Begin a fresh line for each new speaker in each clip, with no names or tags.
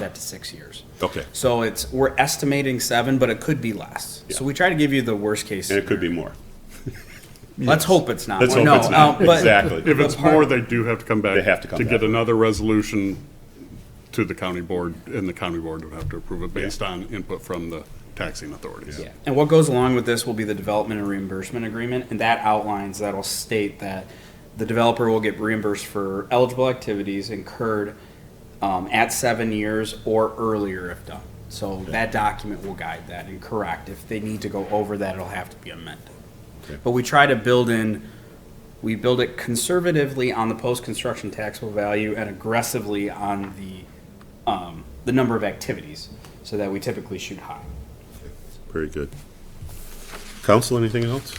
that to six years.
Okay.
So it's, we're estimating seven, but it could be less. So
Yeah.
we try to give you the worst case.
And it could be more.
Let's hope it's not.
Let's
one.
hope
No,
it's not.
uh, but-
Exactly.
If it's
part-
more, they do have to come back.
They have to come
To get
back.
another resolution to the county board, and the county board would have to approve it based on input from the taxing authorities.
Yeah. And what goes along with this will be the development and reimbursement agreement, and that outlines, that'll state that the developer will get reimbursed for eligible activities incurred um, at seven years or earlier if done. So that document will guide that and correct. If they need to go over that, it'll have to be amended. But we try to build in, we build it conservatively on the post-construction taxable value and aggressively on the, um, the number of activities, so that we typically shoot high.
Very good. Council, anything else?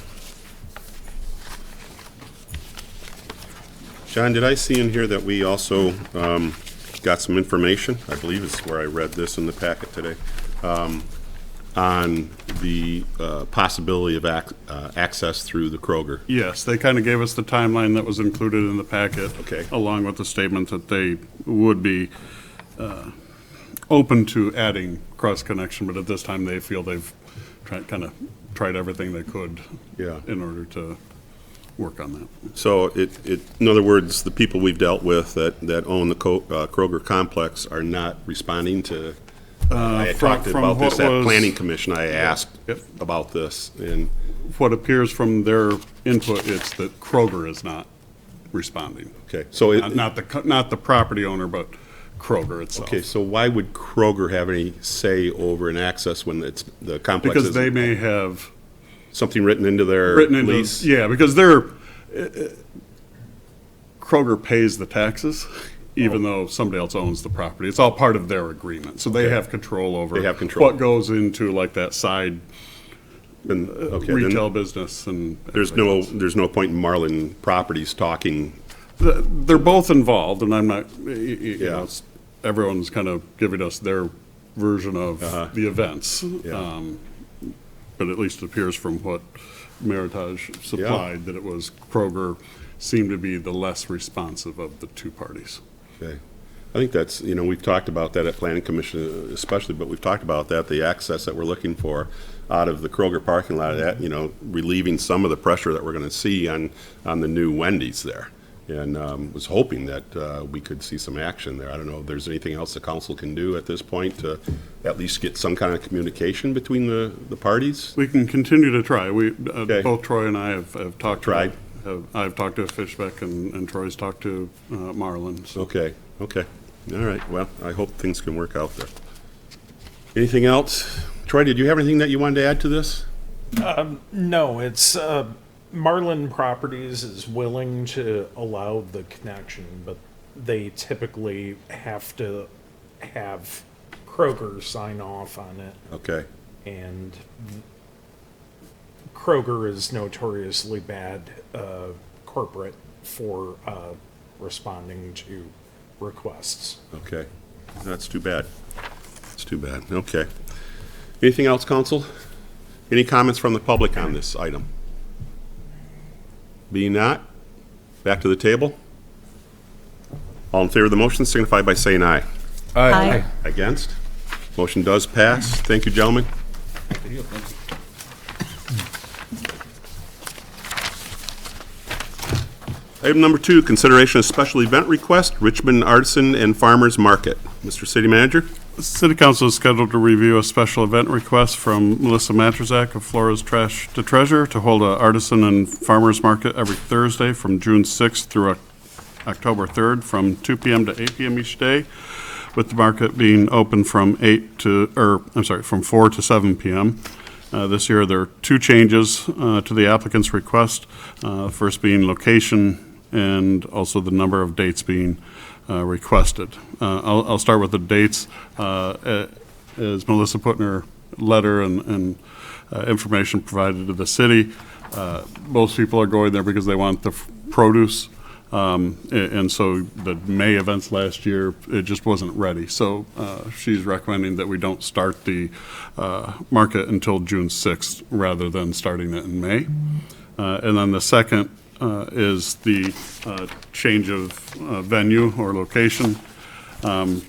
John, did I see in here that we also um, got some information? I believe it's where I read this in the packet today. um, On the uh, possibility of ac- uh, access through the Kroger.
Yes, they kind of gave us the timeline that was included in the packet.
Okay.
Along with the statement that they would be uh, open to adding cross-connection, but at this time, they feel they've tried, kind of tried everything they could.
Yeah.
In order to work on that.
So it, it, in other words, the people we've dealt with that, that own the Co- uh, Kroger complex are not responding to. I had
from-
talked
Uh, from
about this
what
at
was-
Planning Commission. I asked
Yep.
about this and,
What appears from their input, it's that Kroger is not responding.
okay, so, it-
Not- Not the, co- not the property owner, but Kroger itself.
okay, so why would Kroger have any say over an access when it's, the complex
Because they
is
may have
something written into their
written into,
lease?
yeah, because they're, uh, uh, Kroger pays the taxes,
Oh.
even though somebody else owns the property. It's all part of their agreement, so they have control over.
They have control.
What goes into like that side
Then- okay, then
retail business and.
There's no, there's no point in Marlin Properties talking,
Th- They're both involved, and I'm not, y- y- you
Yeah.
know, it's- everyone's kind of giving us their version of the events.
Uh-huh. Yeah.
Um, But at least it appears from what Meritage supplied, that it was Kroger seemed to be the less responsive of the two parties.
Okay. I think that's, you know, we've talked about that at Planning Commission especially, but we've talked about that, the access that we're looking for out of the Kroger parking lot, that, you know, relieving some of the pressure that we're going to see on, on the new Wendy's there. And um, was hoping that uh, we could see some action there. I don't know if there's anything else the council can do at this point to at least get some kind of communication between the, the parties?
We can continue to try. We, uh,
Okay.
both Troy and I have have talked. to-
Tried.
have- I've talked to Fishbeck, and and Troy's talked to uh, Marlin, so.
Okay, okay. All right, well, I hope things can work out there. Anything else? Troy, did you have anything that you wanted to add to this?
No, it's, uh, Marlin Properties is willing to allow the connection, but they typically have to have Kroger sign off on it.
Okay.
And Kroger is notoriously bad, uh, corporate for, uh, responding to requests.
Okay, that's too bad. That's too bad, okay. Anything else, council? Any comments from the public on this item? Being not, back to the table. All in favor of the motion signify by saying aye.
Aye.
Against? Motion does pass. Thank you, gentlemen. Item number two, consideration of special event request, Richmond Artisan and Farmers Market. Mr. City Manager?
City Council is scheduled to review a special event request from Melissa Matrazak of Flores Trash to Treasure to hold a artisan and farmers market every Thursday from June 6th through Oc- October 3rd, from 2 PM to 8 PM each day, with the market being open from 8 to, or, I'm sorry, from 4 to 7 PM. Uh, This year, there are two changes uh, to the applicant's request, uh, first being location and also the number of dates being uh, requested. Uh, I'll I'll start with the dates. Uh, a- As Melissa put in her letter and- and uh, information provided to the city, uh, most people are going there because they want the f- produce. Um, a- And so the May events last year, it just wasn't ready. So uh, she's recommending that we don't start the uh, market until June 6th rather than starting it in May. Uh, And then the second uh, is the uh, change of uh, venue or location. Um,